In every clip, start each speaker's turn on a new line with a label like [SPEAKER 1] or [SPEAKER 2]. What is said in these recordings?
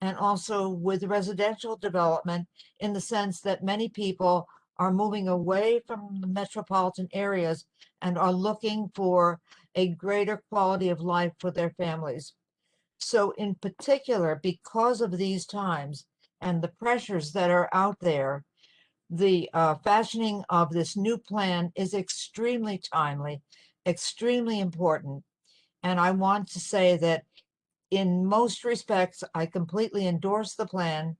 [SPEAKER 1] and also with residential development in the sense that many people are moving away from the metropolitan areas and are looking for a greater quality of life for their families. So in particular, because of these times and the pressures that are out there, the uh, fashioning of this new plan is extremely timely, extremely important. And I want to say that in most respects, I completely endorse the plan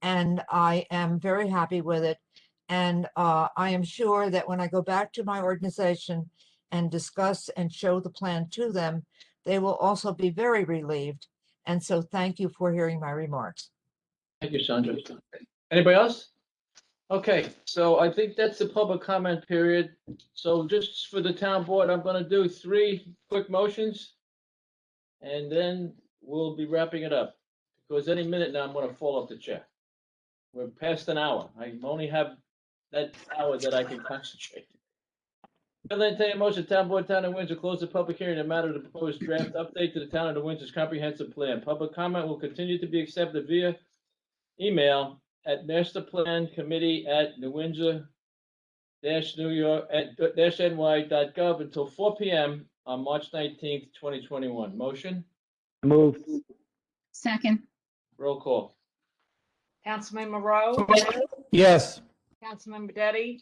[SPEAKER 1] and I am very happy with it. And uh, I am sure that when I go back to my organization and discuss and show the plan to them, they will also be very relieved. And so thank you for hearing my remarks.
[SPEAKER 2] Thank you, Sandra. Anybody else? Okay, so I think that's the public comment period. So just for the town board, I'm gonna do three quick motions. And then we'll be wrapping it up, because any minute now I'm gonna fall off the chair. We're past an hour. I only have that hour that I can concentrate. I'll entertain a motion, town board, town of Windsor, close the public hearing in matter of the proposed draft update to the town of New Windsor's comprehensive plan. Public comment will continue to be accepted via email at masterplancommittee at New Windsor dash New York at dash NY dot gov until four PM on March nineteenth, twenty twenty-one. Motion,
[SPEAKER 3] Move,
[SPEAKER 4] Second,
[SPEAKER 2] roll call.
[SPEAKER 5] Councilmember Rowe,
[SPEAKER 3] yes.
[SPEAKER 5] Councilmember Detti,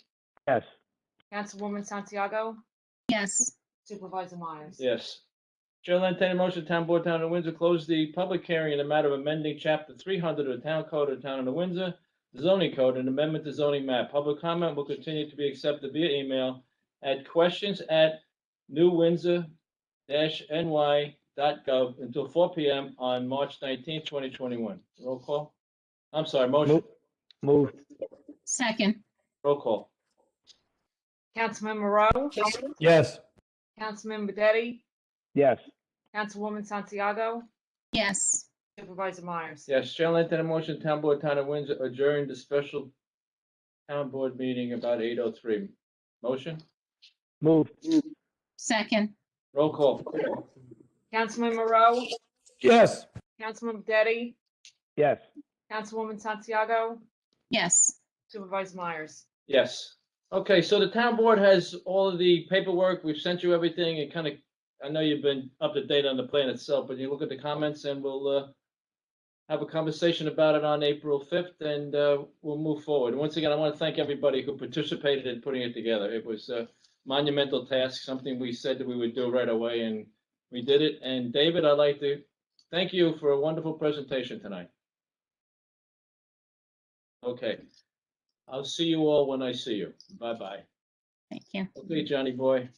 [SPEAKER 3] Yes.
[SPEAKER 5] Councilwoman Santiago,
[SPEAKER 4] yes,
[SPEAKER 5] Supervisor Myers.
[SPEAKER 2] Yes. Chair will entertain a motion, town board, town of New Windsor, close the public hearing in the matter of amending chapter three hundred of the town code of the town of New Windsor, the zoning code and amendment to zoning map. Public comment will continue to be accepted via email at questions at newwindsor-ny.gov until four PM on March nineteenth, twenty twenty-one. Roll call. I'm sorry, motion,
[SPEAKER 3] Move, move,
[SPEAKER 4] second,
[SPEAKER 2] roll call.
[SPEAKER 5] Councilmember Rowe,
[SPEAKER 3] yes.
[SPEAKER 5] Councilmember Detti,
[SPEAKER 3] Yes.
[SPEAKER 5] Councilwoman Santiago,
[SPEAKER 4] yes,
[SPEAKER 5] Supervisor Myers.
[SPEAKER 2] Yes, Chair will entertain a motion, town board, town of Windsor, adjourn the special town board meeting about eight oh three. Motion?
[SPEAKER 3] Move,
[SPEAKER 4] second,
[SPEAKER 2] Roll call.
[SPEAKER 5] Councilmember Rowe,
[SPEAKER 3] yes.
[SPEAKER 5] Councilmember Detti,
[SPEAKER 3] Yes.
[SPEAKER 5] Councilwoman Santiago,
[SPEAKER 4] yes.
[SPEAKER 5] Supervisor Myers.
[SPEAKER 2] Yes. Okay, so the town board has all of the paperwork. We've sent you everything and kind of, I know you've been up to date on the plan itself, but you look at the comments and we'll uh have a conversation about it on April fifth and uh we'll move forward. Once again, I want to thank everybody who participated in putting it together. It was a monumental task, something we said that we would do right away and we did it. And David, I'd like to thank you for a wonderful presentation tonight. Okay. I'll see you all when I see you. Bye-bye.
[SPEAKER 4] Thank you.
[SPEAKER 2] Okay, Johnny boy.